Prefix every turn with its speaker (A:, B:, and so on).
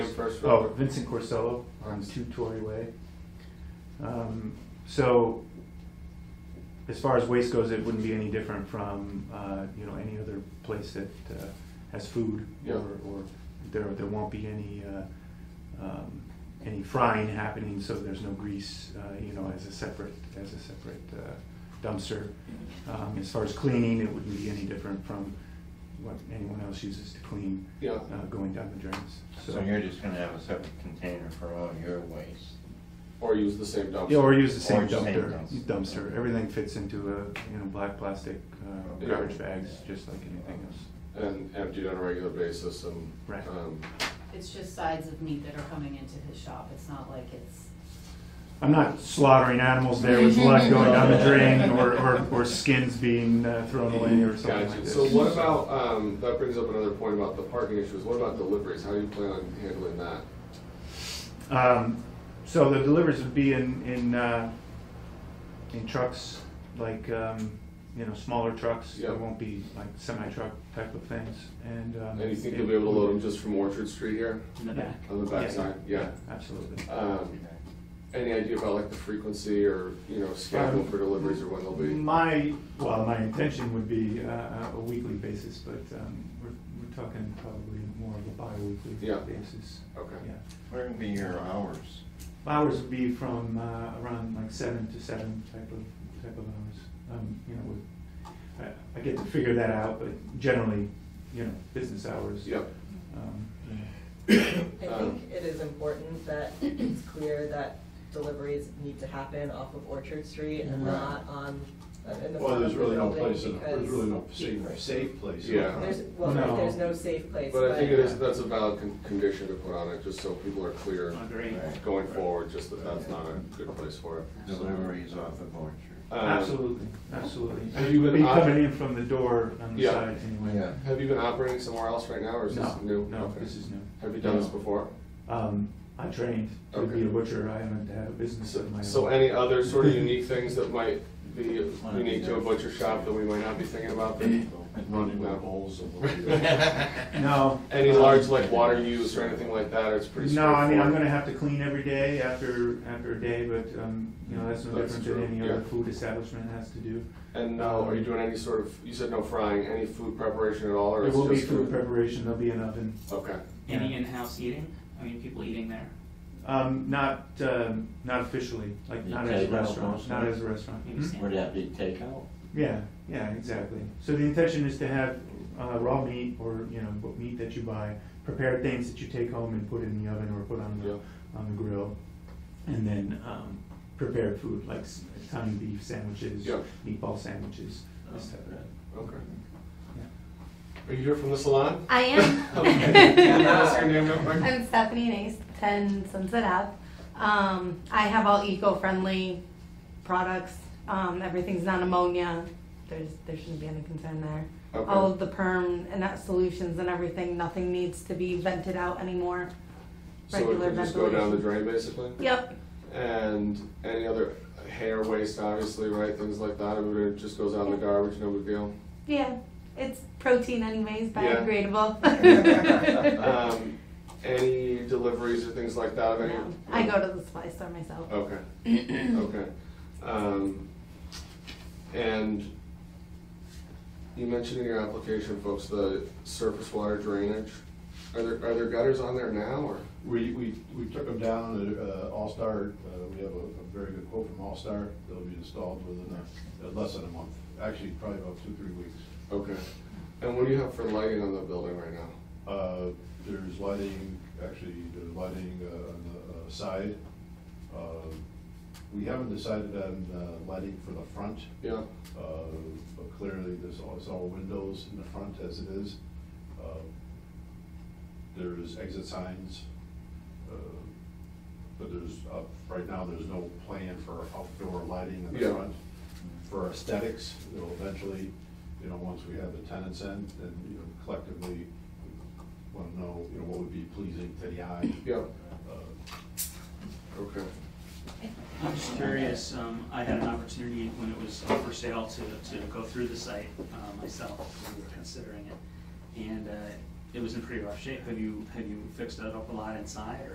A: oh, Vincent Corsello on Two Torrey Way. Um, So as far as waste goes, it wouldn't be any different from, uh, you know, any other place that uh, has food.
B: Yeah.
A: Or, or there, there won't be any, uh, um, any frying happening, so there's no grease, uh, you know, as a separate, as a separate uh, dumpster. Um, As far as cleaning, it wouldn't be any different from what anyone else uses to clean
B: Yeah,
A: uh, going down the drains.
C: So you're just gonna have a separate container for all your waste?
B: or use the same dumpster.
A: Yeah, or use the same
C: Or just same
A: dumpster,
C: dumpster.
A: dumpster, everything fits into a, you know, black plastic uh,
B: Yeah.
A: garbage bags, just like anything else.
B: And emptied on a regular basis and.
A: Right.
B: um,
D: It's just sides of meat that are coming into his shop, it's not like it's,
A: I'm not slaughtering animals there with blood going down the drain or, or, or skins being uh, thrown away or something like
B: Gotcha.
A: this.
B: So what about, um, that brings up another point about the parking issues. What about deliveries? How do you plan on handling that?
A: Um, So the deliveries would be in, in, uh, in trucks, like, um, you know, smaller trucks. It
B: Yeah.
A: won't be like semi-truck type of things, and. um,
B: And you think you'll be able to load them just from Orchard Street here
E: in the back.
B: on the backside? Yeah.
A: Absolutely.
B: Um, Any idea about like the frequency or, you know, schedule for deliveries or when they'll be?
A: Um, My, well, my intention would be uh, a weekly basis, but um, we're we're talking probably more of a bi-weekly
B: Yeah.
A: basis.
B: Okay.
A: Yeah.
C: Where would be your hours?
A: Hours would be from uh, around like seven to seven type of, type of hours. Um, You know, we- I- I get to figure that out, but generally, you know, business hours.
B: Yep.
A: Um, you know.
F: I
B: Um,
F: think it is important that it's clear that deliveries need to happen off of Orchard Street and
C: Right.
F: not on, uh, in the
G: Well,
F: front of
G: there's
F: the
G: really no
F: building
G: place, in- there's really no
F: because
G: safe, safe place. in
B: Yeah.
F: There's,
G: front.
F: well,
A: No.
F: there's no safe place,
B: But I think it
F: but
B: is, that's a valid con- condition to put on it, just so people are clear
E: Agree.
C: Right.
B: going forward, just that that's not a good place for it.
C: Deliveries off of Orchard?
B: Um,
A: Absolutely, absolutely.
B: Have you been
A: Be
B: op-
A: coming in from the door on the
B: Yeah.
A: side anyway.
B: Have you been operating somewhere else right now, or is
A: No,
B: this new?
A: no,
B: Okay.
A: this is new.
B: Have you done this before?
A: Um, I trained to be
B: Okay.
A: a butcher. I haven't had a business
B: So,
A: of my own.
B: so any other sort of unique things that might be
C: Might be
B: unique to a
C: there.
B: butcher shop that we might not be thinking about? that-
G: Running
B: No.
G: with holes and whatever.
A: No.
B: Any
A: Um,
B: large like water use or anything like that, or it's pretty
A: No, I
B: straightforward?
A: mean, I'm gonna have to clean every day after, after a day, but, um, you know, that's no
B: That's
A: different than
B: true,
A: any other
B: yeah.
A: food establishment has to do.
B: And now, are you doing any sort of, you said no frying, any food preparation at all, or
A: There
B: it's
A: will be
B: just
A: food preparation, there'll be an oven.
B: Okay,
E: Any in-house eating? I mean, people eating there?
A: Um, not, um, not officially, like, not as a
C: Takeout
A: restaurant,
C: mostly?
A: not as a restaurant.
E: Maybe
A: Hmm?
E: sandwich.
C: Would that be takeout?
A: Yeah, yeah, exactly. So the intention is to have, uh, raw meat or, you know, what meat that you buy, prepared things that you take home and put in the oven or put on the,
B: yeah.
A: on the grill. And then um, prepared food like s- tiny beef sandwiches,
B: Yeah.
A: meatball sandwiches, this type of
B: Okay.
A: Yeah.
B: Are you here from the salon?
H: I
B: Okay. Can you tell us your
H: am.
B: name real quick?
H: I'm Stephanie Nace, 10 Sunset Ave. Um, I have all eco-friendly products. Um, everything's not ammonia. There's there shouldn't be any concern there.
B: Okay.
H: All of the perm and that solutions and everything, nothing needs to be vented out anymore.
B: So it
H: regular
B: can just go down the
H: ventilation.
B: drain, basically?
H: Yep.
B: And any other hair waste, obviously, right, things like that, I mean, it just goes out in the garbage, no big deal.
H: Yeah. It's protein anyways,
B: Yeah.
H: biodegradable.
B: Um, any deliveries or things like that of any?
H: No. I go to the supply store myself.
B: Okay, okay. Um, and you mentioned in your application, folks, the surface water drainage. Are there, are there gutters on there now, or?
G: We, we, we took them down, uh, All-Star, uh, we have a, a very good quote from All-Star, they'll be installed within a, uh, less than a month, actually probably about two, three weeks.
B: Okay. And what do you have for lighting on the building right now?
G: Uh, there's lighting, actually, there's lighting, uh, on the, uh, side. Uh, We haven't decided on, uh, lighting for the front,
B: Yeah,
G: Uh, But clearly, there's all, it's all windows in the front as it is. Uh, There is exit signs, uh, but there's, uh, right now, there's no plan for outdoor lighting in
B: Yeah.
G: the front. For aesthetics, it'll eventually, you know, once we have the tenants in, then, you know, collectively, want to know, you know, what would be pleasing to the eye.
B: yeah,
G: Uh,
B: okay.
E: I'm just curious, um, I had an opportunity when it was up for sale to, to go through the site, uh, myself, when we were considering it. And, uh, it was in pretty rough shape. Have you, have you fixed it up a lot inside or